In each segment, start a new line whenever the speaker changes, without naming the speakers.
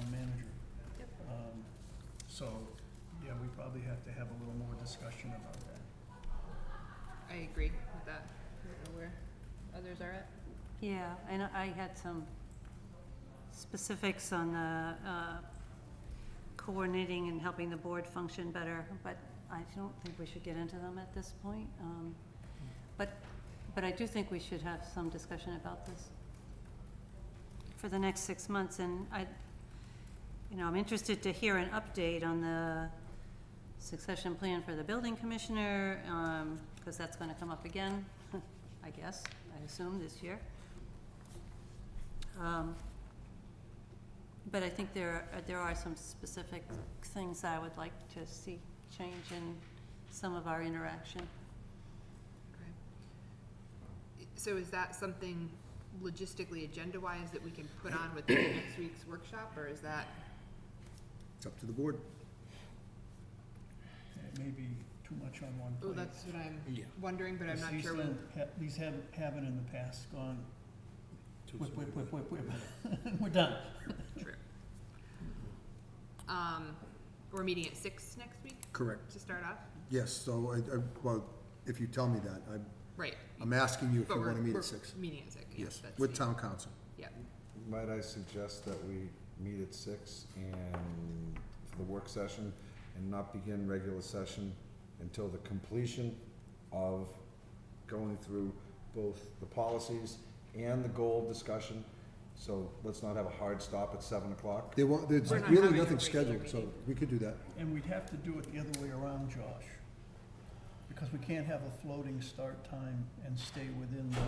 Um, So, yeah, we probably have to have a little more discussion about that.
I agree with that. I don't know where others are at.
Yeah, and I had some specifics on the uh, coordinating and helping the board function better, but I don't think we should get into them at this point. Um, But, but I do think we should have some discussion about this for the next six months, and I, you know, I'm interested to hear an update on the succession plan for the building commissioner, because that's going to come up again, I guess, I assume, this year. Um, But I think there, are- there are some specific things I would like to see change in some of our interaction.
Okay. So is that something logistically agenda-wise that we can put on with next week's workshop, or is that?
It's up to the board.
It may be too much on one
Oh,
plate.
that's what I'm
Yeah.
wondering, but I'm
Because
not
these
sure. we-
don't ha- These haven't, haven't in the past gone, whip, whip, whip, whip, whip, we're done.
True. Um, we're meeting at six next week
Correct.
to start off?
Yes, so I, I, well, if you tell me that, I'm,
Right.
I'm asking you if
But
you
we're-
want to meet
we're
at six.
Meeting at six, yes.
Yes,
that's
with
the-
town council.
Yep,
Might I suggest that we meet at six and, for the work session, and not begin regular session until the completion of going through both the policies and the goal discussion, so let's not have a hard stop at seven o'clock.
There wa, there's
We're not
really
having a
nothing
regular
scheduled, so
meeting.
we could do that.
And we'd have to do it the other way around, Josh. Because we can't have a floating start time and stay within the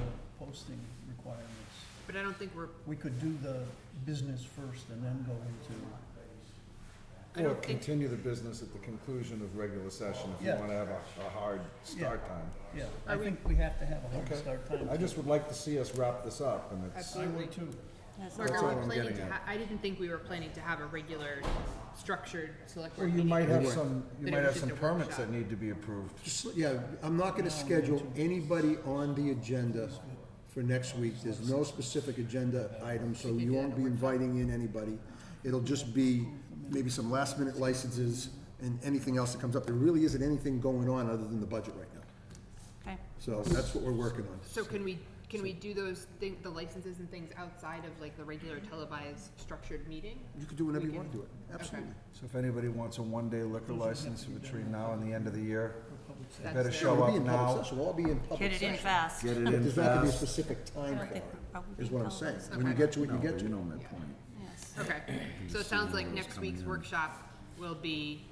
posting requirements.
but I don't think we're,
We could do the business first and then go into,
I
Or
don't think,
continue the business at the conclusion of regular session if you
Yeah.
wanna have a, a hard start time.
yeah, I
Are we-
think we have to have a hard
Okay.
start time.
I just would like to see us wrap this up, and it's,
I would too.
That's
Mark,
That's
are
all
we
I'm
planning
getting
to
at.
ha- I didn't think we were planning to have a regular structured select
or
board
you
meeting.
might have some,
But
you
it
might
was
have
just
some
a
permits
workshop.
that need to be approved.
Just, yeah, I'm not gonna schedule anybody on the agenda for next week. There's no specific agenda item, so you won't be inviting in anybody. It'll just be maybe some last minute licenses and anything else that comes up. There really isn't anything going on other than the budget right now.
Okay,
So that's what we're working on.
So can we, can we do those thing, the licenses and things outside of like the regular televised structured meeting?
You could do whenever you
We
want to
can-
do it, absolutely.
So if anybody wants a one-day liquor license between now and the end of the year,
That's
better
the-
show
It'll
up
be in public
now,
session, we'll all be in
get
public
it in
session.
fast.
get it
But
in
There's not gonna be a
fast.
specific
I
time
don't
for
think
it,
we're probably.
is what I'm
in
saying.
public.
When you
Okay.
get to it, you get to it.
my point.
Yes.
Okay, so it sounds like next week's workshop will be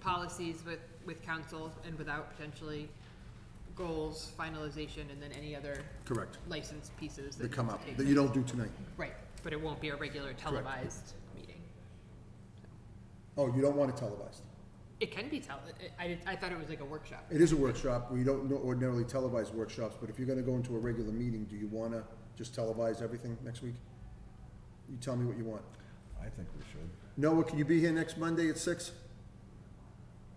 policies with, with council and without potentially goals, finalization, and then any other
Correct.
license pieces that
That come
need
up,
to take
that you don't do tonight.
place. Right, but it won't be a regular televised meeting.
Oh, you don't want it televised. it
It can be tele, I, I- I thought it was like a workshop.
It is a workshop, we don't nor- ordinarily televise workshops, but if you're gonna go into a regular meeting, do you wanna just televise everything next week? You tell me what you want.
I think we should.
Noah, can you be here next Monday at six?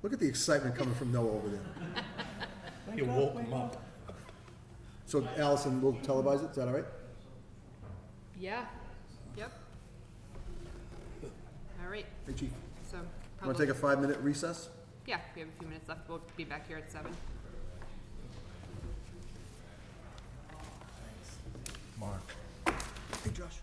Look at the excitement coming from Noah over there.
You woke them up.
So Allison, we'll televise it, is that all right?
Yeah, yep. All right,
Hey, chief,
so
wanna
probably,
take a five-minute recess?
yeah, we have a few minutes left, we'll be back here at seven.
Mark.
Hey, Josh.